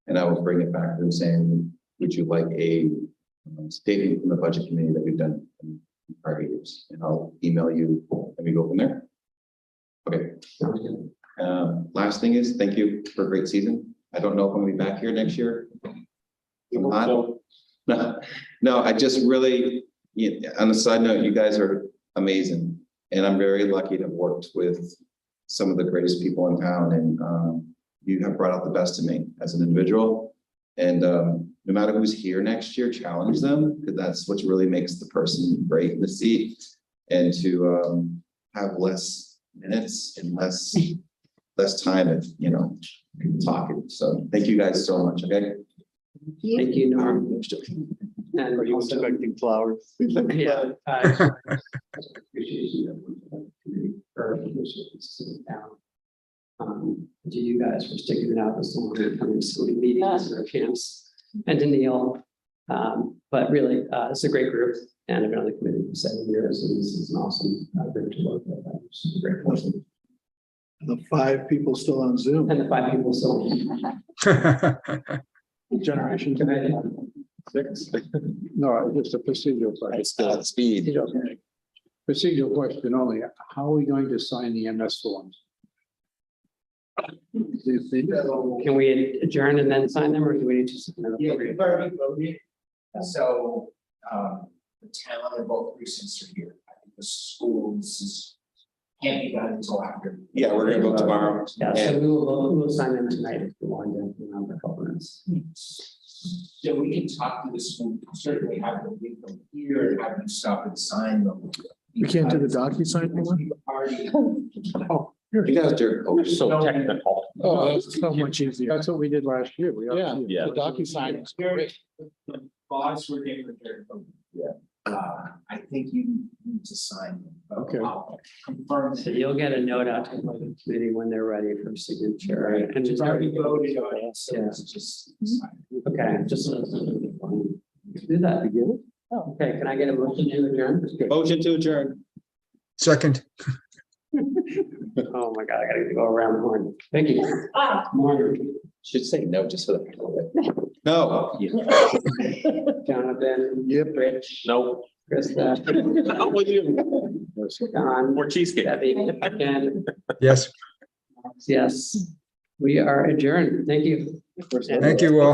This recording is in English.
And I will bring it back to them saying, would you like a um, statement from the budget committee that we've done in prior years? And I'll email you and we go from there. Okay. Um, last thing is, thank you for a great season. I don't know if I'm gonna be back here next year. I'm not. No, no, I just really, yeah, on a side note, you guys are amazing. And I'm very lucky to have worked with some of the greatest people in town and um, you have brought out the best in me as an individual. And um, no matter who's here next year, challenge them, because that's what really makes the person great in the seat. And to um, have less minutes and less, less time of, you know, talking. So thank you guys so much, okay? Thank you, Norm. And Are you also- expecting flowers? Yeah. uh, appreciation of what the community or officials in the town. Um, to you guys for sticking it out this long and coming to so many meetings or camps and to Neil. Um, but really, uh, it's a great group and I've been on the committee for seven years and this is an awesome uh, group to work with. I'm just grateful. The five people still on Zoom, And the five people still. generation. Six. No, just a procedural question. It's the speed. Procedural- Procedural question only, how are we going to sign the MS forms? Do you think- Can we adjourn and then sign them or do we need to? sign them? Yeah, we've already voted, so, um, the town and both precincts are here, I think the schools is. Can't be done until after. Yeah, we're gonna go tomorrow. Yeah, so we will, vote- we will sign them tonight if you want to, you know, the governance. So we can talk to the school, certainly have them leave them here, and have them stop and sign them. We can't do the DocuSign Because anymore? we've Already. Oh, You guys are, oh, so technical. oh, that's so much easier. That's what we did last year. We Yeah. Yeah. The DocuSign is great. The Bonds were getting prepared. Yeah. Uh, I think you need to sign them. but Okay. I'll Confirm. So you'll get a note out to the committee when they're ready for signature. And It's just- already voted on it, so Yeah. it's just. sign. Okay, just. so it's not gonna be fun. Do that. Oh, Okay, can I get a motion to adjourn? motion to adjourn. Second, Oh my God, I gotta go around the horn. Thank you. Morning, Should say no, just for the. No. Jonathan. Yep. Rich. Nope. Krista. Not with you. Don. More cheesecake. Debbie. Ken. yes, Yes, we are adjourned. Thank you. thank you all.